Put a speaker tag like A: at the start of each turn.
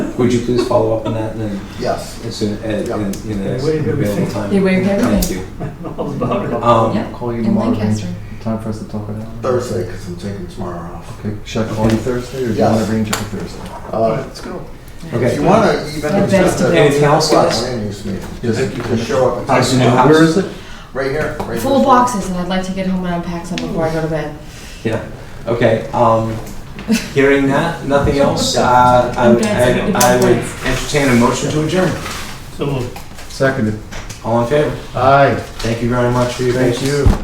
A: Would you please follow up on that and then,
B: Yes.
A: as soon, as-
B: Yeah.
A: in, in the next
C: They waived everything.
A: available time?
D: They waived everything.
A: Thank you.
C: All about it.
A: Um,
D: Yeah,
E: Call you
D: in
E: tomorrow.
D: Lancaster.
E: Time for us to talk about it.
B: Thursday, because I'm taking tomorrow off.
E: Okay, should I call you Thursday or do you
B: Yes.
E: want to arrange it for Thursday?
B: Uh,
C: Let's go.
B: If you
A: okay.
B: want to even
D: Yeah,
B: just
D: thanks.
B: a-
A: Anything else, guys?
B: Land use meeting.
E: Yes.
B: Just just show up.
A: House.
B: and take
A: House.
B: it.
E: Where is it?
B: Right here, right here.
D: Full boxes, and I'd like to get home and unpack some before I go to bed.
A: Yeah, okay, um, hearing that, nothing else, uh, I,
D: Okay, it's like a
A: I- I would
D: different
A: entertain a motion to adjourn.
C: So moved.
E: Seconded.
A: All in favor?
E: Aye.
A: Thank you very much for your
E: Thank
A: patience.
E: you.